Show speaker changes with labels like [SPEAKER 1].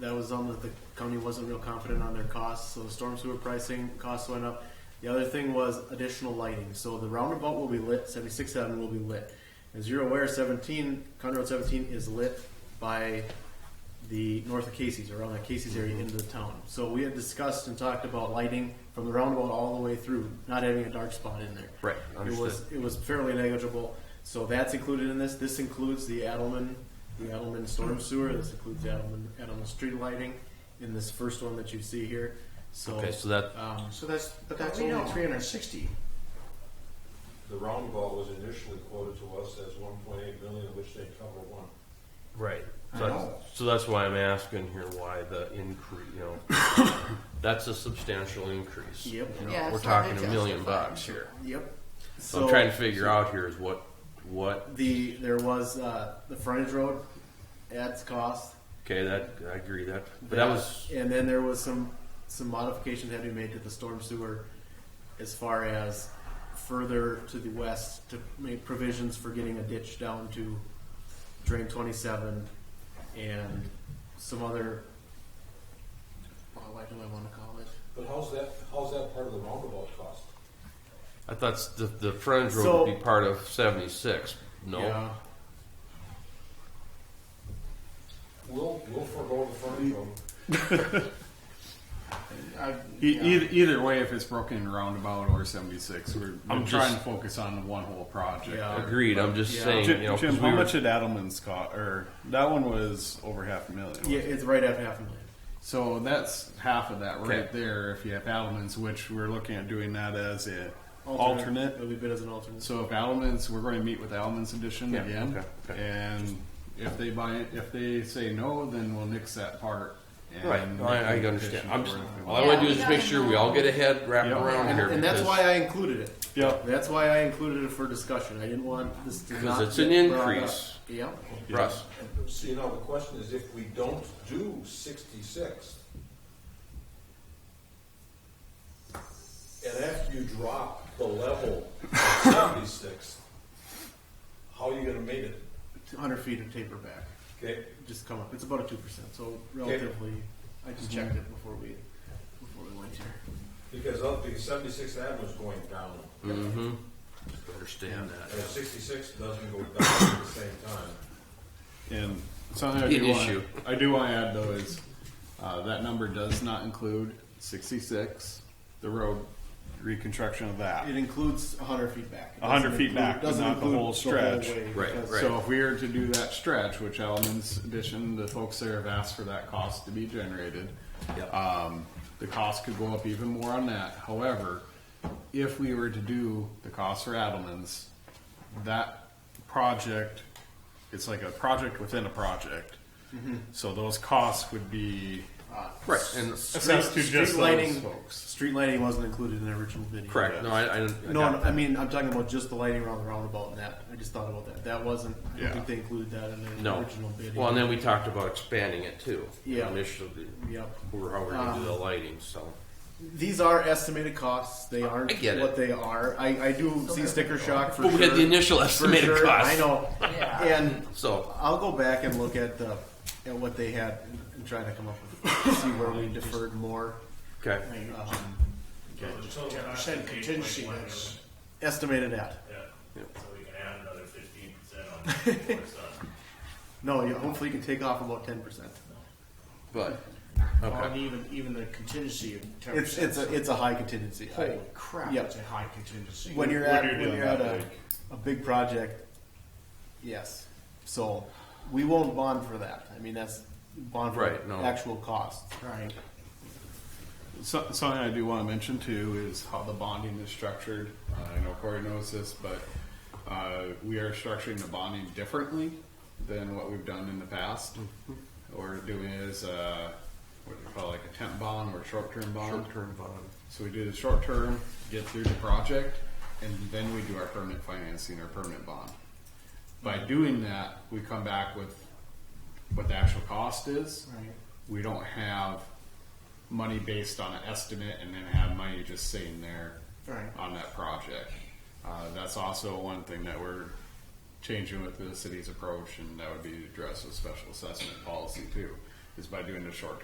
[SPEAKER 1] that was on that the company wasn't real confident on their costs, so the storm sewer pricing costs went up. The other thing was additional lighting. So the roundabout will be lit, 76.7 will be lit. As you're aware, 17, County Road 17 is lit by the north of Casey's, around the Casey's area into the town. So we had discussed and talked about lighting from the roundabout all the way through, not having a dark spot in there.
[SPEAKER 2] Right,
[SPEAKER 1] It was,
[SPEAKER 2] understood.
[SPEAKER 1] it was fairly negligible. So that's included in this. This includes the Adelman, the Adelman storm sewer. This includes the Adelman, Adelman street lighting in this first one that you see here. So,
[SPEAKER 2] Okay, so that,
[SPEAKER 1] um,
[SPEAKER 3] So that's, but that's
[SPEAKER 1] We
[SPEAKER 3] only
[SPEAKER 1] don't-
[SPEAKER 3] three hundred and sixty.
[SPEAKER 4] The roundabout was initially quoted to us as one point eight million, of which they cover one.
[SPEAKER 2] right.
[SPEAKER 3] I
[SPEAKER 2] So
[SPEAKER 3] know.
[SPEAKER 2] that's, so that's why I'm asking here why the increase, you know, that's a substantial increase.
[SPEAKER 1] Yep.
[SPEAKER 2] You know,
[SPEAKER 5] Yeah,
[SPEAKER 2] We're
[SPEAKER 5] it's hard
[SPEAKER 2] talking
[SPEAKER 5] to
[SPEAKER 2] a million
[SPEAKER 5] justify.
[SPEAKER 2] bucks here.
[SPEAKER 1] yep.
[SPEAKER 2] So I'm trying to figure out here is what, what,
[SPEAKER 1] the there was uh, the frontage road adds cost.
[SPEAKER 2] okay, that, I agree that, but that was,
[SPEAKER 1] and then there was some some modifications that had to be made to the storm sewer as far as further to the west to make provisions for getting a ditch down to drain 27 and some other oh, what do I want to call it
[SPEAKER 4] But how's that, how's that part of the roundabout cost?
[SPEAKER 2] I thought s- the, the frontage
[SPEAKER 1] So-
[SPEAKER 2] road would be part of seventy-six, no?
[SPEAKER 1] yeah
[SPEAKER 4] We'll, we'll forego the frontage road.
[SPEAKER 6] E- either, either way, if it's broken in roundabout or 76, we're, we're
[SPEAKER 2] I'm
[SPEAKER 6] trying
[SPEAKER 2] just-
[SPEAKER 6] to focus on the one whole project.
[SPEAKER 1] Yeah.
[SPEAKER 2] Agreed, I'm just
[SPEAKER 1] Yeah.
[SPEAKER 2] saying,
[SPEAKER 6] Jim,
[SPEAKER 2] you know, 'cause
[SPEAKER 6] Jim,
[SPEAKER 2] we
[SPEAKER 6] how
[SPEAKER 2] were,
[SPEAKER 6] much did Adelman's cost? Or that one was over half a million.
[SPEAKER 1] yeah it's right at half a million
[SPEAKER 6] So that's half of that right
[SPEAKER 2] Okay.
[SPEAKER 6] there. If you have Adelman's, which we're looking at doing that as a alternate.
[SPEAKER 1] it'll be bid as an alternate
[SPEAKER 6] So if Adelman's, we're going to meet with Adelman's edition
[SPEAKER 2] Yeah,
[SPEAKER 6] again,
[SPEAKER 2] okay, okay.
[SPEAKER 6] and if they buy it, if they say no, then we'll nix that part. And
[SPEAKER 2] right,
[SPEAKER 6] make
[SPEAKER 2] I, I
[SPEAKER 6] an
[SPEAKER 2] understand,
[SPEAKER 6] petition
[SPEAKER 2] I'm
[SPEAKER 6] for
[SPEAKER 2] just,
[SPEAKER 6] it if we
[SPEAKER 2] all
[SPEAKER 6] want.
[SPEAKER 2] I
[SPEAKER 5] Yeah,
[SPEAKER 2] wanna do
[SPEAKER 5] we
[SPEAKER 2] is
[SPEAKER 5] gotta
[SPEAKER 2] make sure we
[SPEAKER 5] know.
[SPEAKER 2] all get ahead, wrap
[SPEAKER 6] Yeah.
[SPEAKER 2] around
[SPEAKER 1] and,
[SPEAKER 2] here.
[SPEAKER 1] and that's
[SPEAKER 2] because-
[SPEAKER 1] why I included it
[SPEAKER 6] Yeah.
[SPEAKER 1] that's why I included it for discussion I didn't want this to
[SPEAKER 2] Because
[SPEAKER 1] not
[SPEAKER 2] it's an
[SPEAKER 1] get brought up.
[SPEAKER 2] increase.
[SPEAKER 1] yep
[SPEAKER 2] Russ,
[SPEAKER 4] So you know, the question is if we don't do sixty-six, and after you drop the level of seventy-six, how are you gonna meet it?
[SPEAKER 1] 100 feet of taper back
[SPEAKER 4] Okay,
[SPEAKER 1] just come up. It's about a two percent, so relatively. I
[SPEAKER 6] Mm-hmm.
[SPEAKER 1] just checked it before we before we went here.
[SPEAKER 4] because of the seventy-six avenue's going down,
[SPEAKER 2] understand that.
[SPEAKER 4] and if sixty-six doesn't go down at the same time.
[SPEAKER 6] And something I
[SPEAKER 2] Good
[SPEAKER 6] do,
[SPEAKER 2] issue.
[SPEAKER 6] want, I do want to add though is uh, that number does not include 66, the road reconstruction of that.
[SPEAKER 1] It includes 100 feet back. It
[SPEAKER 6] 100
[SPEAKER 1] doesn't
[SPEAKER 6] feet back, but
[SPEAKER 1] doesn't
[SPEAKER 6] not the
[SPEAKER 1] include
[SPEAKER 6] whole stretch.
[SPEAKER 1] way,
[SPEAKER 2] Right,
[SPEAKER 1] because-
[SPEAKER 2] right.
[SPEAKER 6] So if we are to do that stretch, which Elements Edition, the folks there have asked for that cost to be generated.
[SPEAKER 2] Yep.
[SPEAKER 6] Um, the cost could go up even more on that. However, if we were to do the cost for Adelman's, that project, it's like a project within a project. So those costs would be
[SPEAKER 2] Right, and
[SPEAKER 6] assessed to just those
[SPEAKER 1] lighting,
[SPEAKER 6] folks.
[SPEAKER 1] street lighting wasn't included in the original video.
[SPEAKER 2] correct. No, I, I, I
[SPEAKER 1] No, no,
[SPEAKER 2] got
[SPEAKER 1] I mean I'm talking about just the lighting around the roundabout and that. I just thought about that. That wasn't. I don't
[SPEAKER 6] Yeah.
[SPEAKER 1] think they included that in the
[SPEAKER 2] No.
[SPEAKER 1] original video.
[SPEAKER 2] Well, and then we talked about expanding it too.
[SPEAKER 1] Yeah.
[SPEAKER 2] Initially,
[SPEAKER 1] Yep. Um,
[SPEAKER 2] or how we're gonna do the lighting, so.
[SPEAKER 1] These are estimated costs. They aren't
[SPEAKER 2] I get it.
[SPEAKER 1] what they are. I, I do see sticker shock for
[SPEAKER 2] But
[SPEAKER 1] sure.
[SPEAKER 2] we had the initial
[SPEAKER 1] For
[SPEAKER 2] estimated
[SPEAKER 1] sure.
[SPEAKER 2] cost.
[SPEAKER 1] I know. And
[SPEAKER 2] So,
[SPEAKER 1] I'll go back and look at the at what they had and try to come up with see where we deferred more.
[SPEAKER 2] okay,
[SPEAKER 1] Um,
[SPEAKER 3] Ten percent contingency, that's,
[SPEAKER 1] estimated at.
[SPEAKER 7] Yeah,
[SPEAKER 2] Yep.
[SPEAKER 7] so we can add another fifteen percent on before it's done.
[SPEAKER 1] No, you, hopefully you can take off about ten percent.
[SPEAKER 2] but,
[SPEAKER 3] on
[SPEAKER 2] okay,
[SPEAKER 3] even, even the contingency of ten
[SPEAKER 1] It's
[SPEAKER 3] percent.
[SPEAKER 1] it's a it's a high contingency. I-
[SPEAKER 3] Holy crap,
[SPEAKER 1] Yep.
[SPEAKER 3] it's a high contingency.
[SPEAKER 1] When you're
[SPEAKER 6] When
[SPEAKER 1] at
[SPEAKER 6] you're
[SPEAKER 1] when
[SPEAKER 6] doing
[SPEAKER 1] you're at
[SPEAKER 6] that
[SPEAKER 1] a, a big project, yes. So we won't bond for that. I mean that's bond for
[SPEAKER 2] Right, no.
[SPEAKER 1] actual cost.
[SPEAKER 3] Right.
[SPEAKER 6] So, something I do want to mention too is how the bonding is structured. Uh, I know Corey knows this, but uh, we are structuring the bonding differently than what we've done in the past.
[SPEAKER 2] Mm-hmm.
[SPEAKER 6] What We're doing is uh, what do you call it, like a temp bond or short term bond.
[SPEAKER 2] short-term bond.
[SPEAKER 6] So we do the short term, get through the project, and then we do our permanent financing or permanent bond. By
[SPEAKER 2] Mm-hmm.
[SPEAKER 6] doing that, we come back with what the actual cost is.
[SPEAKER 3] Right.
[SPEAKER 6] We don't have money based on an estimate and then have money just sitting there
[SPEAKER 3] Right.
[SPEAKER 6] on that project. Uh, that's also one thing that we're changing with the city's approach, and that would be to address with special assessment policy too. is by doing the short